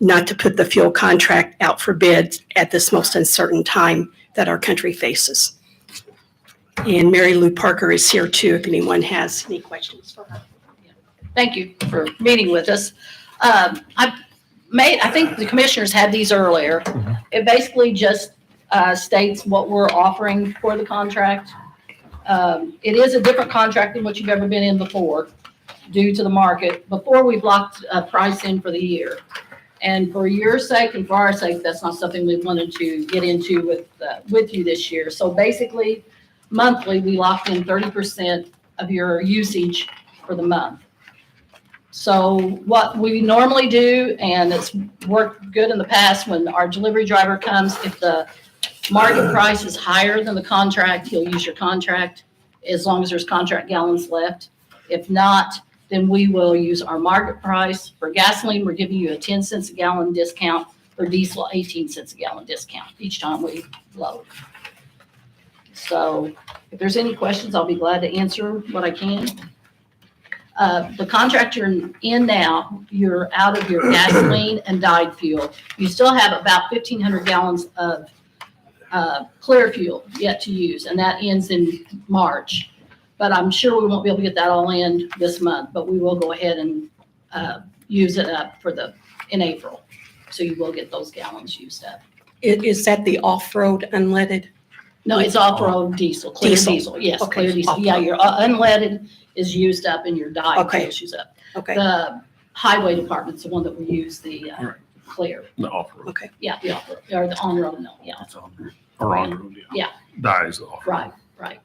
not to put the fuel contract out for bid at this most uncertain time that our country faces. And Mary Lou Parker is here too, if anyone has any questions for her. thank you for meeting with us. Um, I made, I think the commissioners had these earlier. Mhm. It basically just uh, states what we're offering for the contract. Um, It is a different contract than what you've ever been in before due to the market. Before, we've locked a price in for the year. And for your sake and for our sake, that's not something we wanted to get into with, uh, with you this year. So basically, monthly, we locked in thirty percent of your usage for the month. So what we normally do, and it's worked good in the past, when our delivery driver comes, if the market price is higher than the contract, he'll use your contract, as long as there's contract gallons left. If not, then we will use our market price. For gasoline, we're giving you a ten cents a gallon discount, for diesel, eighteen cents a gallon discount each time we load. So if there's any questions, I'll be glad to answer what I can. Uh, the contract you're in now, you're out of your gasoline and dyed fuel. You still have about fifteen hundred gallons of uh, clear fuel yet to use, and that ends in March. But I'm sure we won't be able to get that all in this month, but we will go ahead and uh, use it up for the, in April. So you will get those gallons used up. I- Is that the off-road unleaded? No, it's off-road diesel, clear Diesel. diesel, yes, Okay, clear diesel. Yeah, off-road. your uh, unleaded is used up and your dyed Okay. fuel is used up. Okay, The highway department's the one that we use the uh, Right. clear, The off-road. okay. yeah, the off- or the on-road mill, yeah, It's on- Or on-road, yeah. Yeah. Dies off. right, right.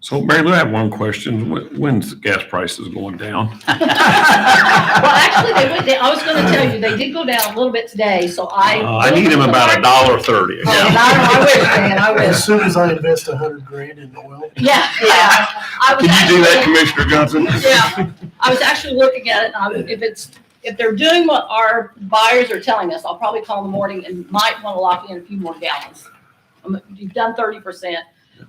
So Mary Lou, I have one question. Wh- When's the gas prices going down? Well, actually, they went, down- I was gonna tell you, they did go down a little bit today, so I. Uh, I need them about a dollar thirty. Oh, and I I wish, man, I As wish, soon as I invest a hundred grand in oil, yeah, yeah. I was Can you do that, actually- Commissioner Johnson? Yeah, I was actually looking at it, and I- if it's, if they're doing what our buyers are telling us, I'll probably call in the morning and might want to lock in a few more gallons. Um, You've done thirty percent.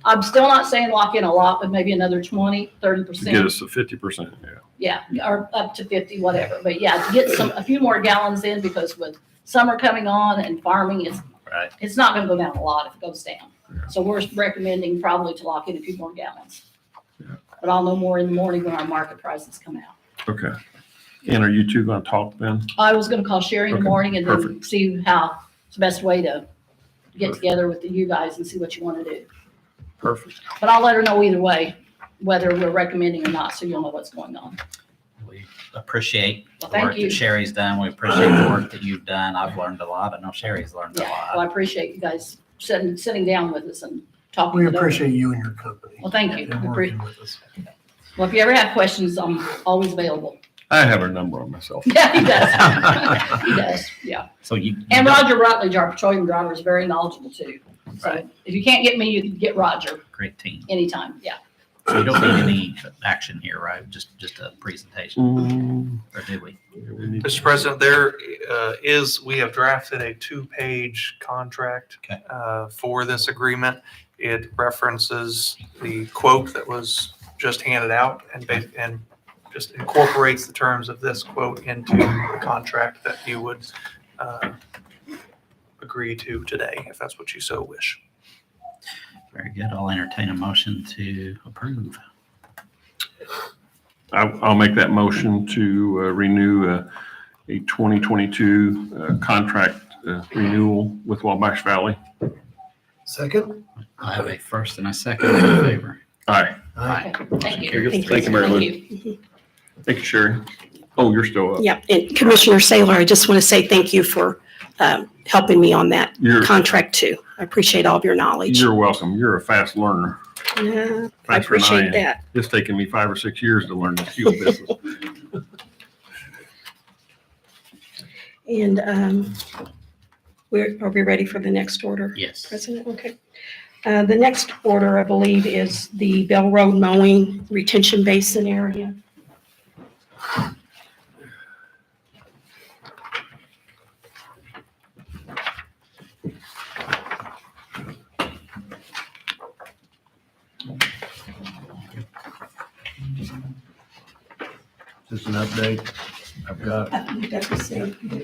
I'm still not saying lock in a lot, but maybe another 20, 30 To Get percent. us to fifty percent, yeah. Yeah, or up to fifty, whatever, but yeah, to get some, a few more gallons in, because with summer coming on and farming, it's, Right. it's not gonna go down a lot if it goes down. Yeah. So we're recommending probably to lock in a few more gallons. Yeah. But I'll know more in the morning when our market prices come out. Okay. And are you two gonna talk then? I was gonna call Sherry in the Okay, morning and then perfect. see how, it's the best way to get Perfect. together with you guys and see what you wanna do. Perfect. But I'll let her know either way, whether we're recommending or not, so you'll know what's going on. We appreciate Well, the work thank you. that Sherry's done. We appreciate the work that you've done. I've learned a lot. I know Sherry's learned a Yeah, well, lot. I appreciate you guys sitting, sitting down with us and talking. we it over. appreciate you and your company. Well, thank you. And working with us. Well, if you ever have questions, I'm always available. I have her number on myself. Yeah, he does. He does, yeah. So you. you And know- Roger Rutledge, our petroleum driver, is very knowledgeable too. So Right. if you can't get me, you can get Roger Great team. anytime, yeah. So you don't need any action here, right? Just, just a presentation, Mm, or do we? yeah, we need- Mr. President, there uh, is, we have drafted a two-page contract Okay. uh, for this agreement. It references the quote that was just handed out and, ba- and just incorporates the terms of this quote into the contract that you would uh, agree to today, if that's what you so wish. Very good. I'll entertain a motion to approve. I, I'll make that motion to uh, renew uh, a twenty twenty-two, uh, contract uh, renewal with Wabash Valley. Second? I have a first and a second All in favor. All right. Aye. Thank you. Thank you. Thank you, Mary Lou. Thank you. Thank you, Sherry. Oh, you're still up. Yeah, and Commissioner Saylor, I just want to say thank you for um, helping me on that You're, contract too. I appreciate all of your knowledge. you're welcome. You're a fast learner. Yeah, I Faster than appreciate am. that. It's taken me five or six years to learn the fuel business. And um, we're, are we ready for the next order? Yes. President, okay. Uh, The next order, I believe, is the Bell Road mowing retention basin area. Just an update. I've got That's the same.